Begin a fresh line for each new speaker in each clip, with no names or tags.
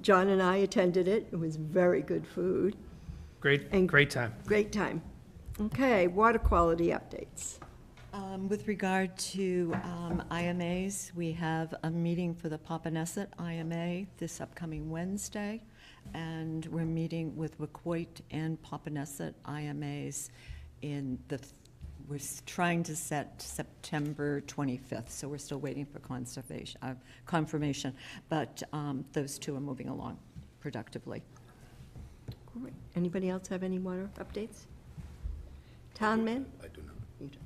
John and I attended it. It was very good food.
Great,
And-
great time.
Great time. Okay, water quality updates.
Um, With regard to um, IMAs, we have a meeting for the Papaneset IMA this upcoming Wednesday, and we're meeting with Wacoit and Papaneset IMAs in the, we're s- trying to set September 25th, so we're still waiting for conservation, uh, confirmation, but um, those two are moving along productively.
Great. Anybody else have any water updates? Town man?
I do not.
You don't.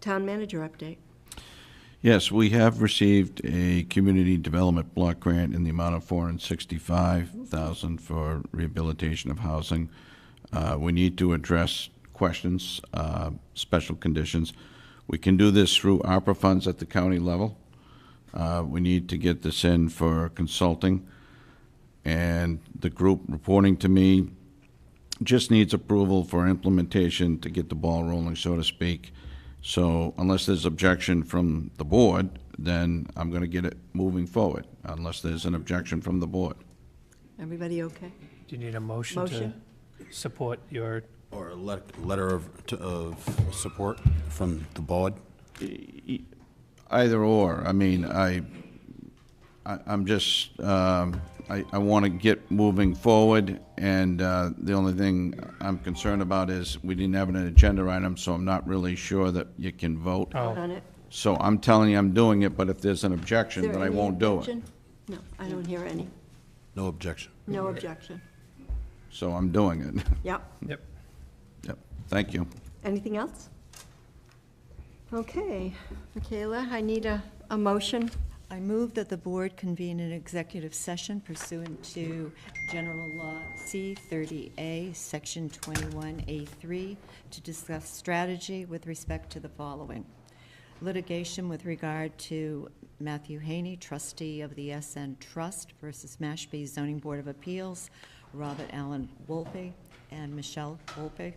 Town manager update.
Yes, we have received a community development block grant in the amount of four hundred and sixty-five thousand for rehabilitation of housing. Uh, we need to address questions, uh, special conditions. We can do this through ARPA funds at the county level. Uh, we need to get this in for consulting. And the group reporting to me just needs approval for implementation to get the ball rolling, so to speak. So unless there's objection from the board, then I'm going to get it moving forward, unless there's an objection from the board.
Everybody okay?
Do you need a motion to
Motion.
support your,
Or a let- letter of, to- of support from the board?
Either or, I mean, I, I- I'm just, um, I, I want to get moving forward, and uh, the only thing I'm concerned about is we didn't have an agenda item, so I'm not really sure that you can vote.
oh,
On it?
So I'm telling you I'm doing it, but if there's an
Is
objection,
there
then I
any
won't do it.
objection? No, I don't hear any.
No objection.
Mm-hmm.
No objection.
So I'm doing it.
Yep.
yep.
Yep, thank you.
Anything else? Okay, Michaela, I need a, a motion.
I move that the board convene an executive session pursuant to General Law C-30A, Section 21A3, to discuss strategy with respect to the following: litigation with regard to Matthew Haney, trustee of the SN Trust versus Mashpee Zoning Board of Appeals, Robert Allen Wolpe, and Michelle Wolpe;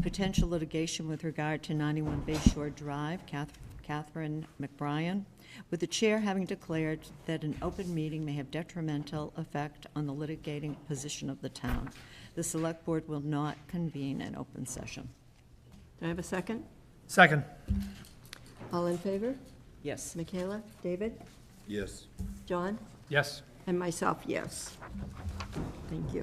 potential litigation with regard to 91 Bay Shore Drive, Catherine Catherine McBrien, with the chair having declared that an open meeting may have detrimental effect on the litigating position of the town. The select board will not convene an open session.
Do I have a second?
Second.
All in favor?
Yes.
Michaela, David,
Yes.
John,
Yes.
and myself, yes. Thank you.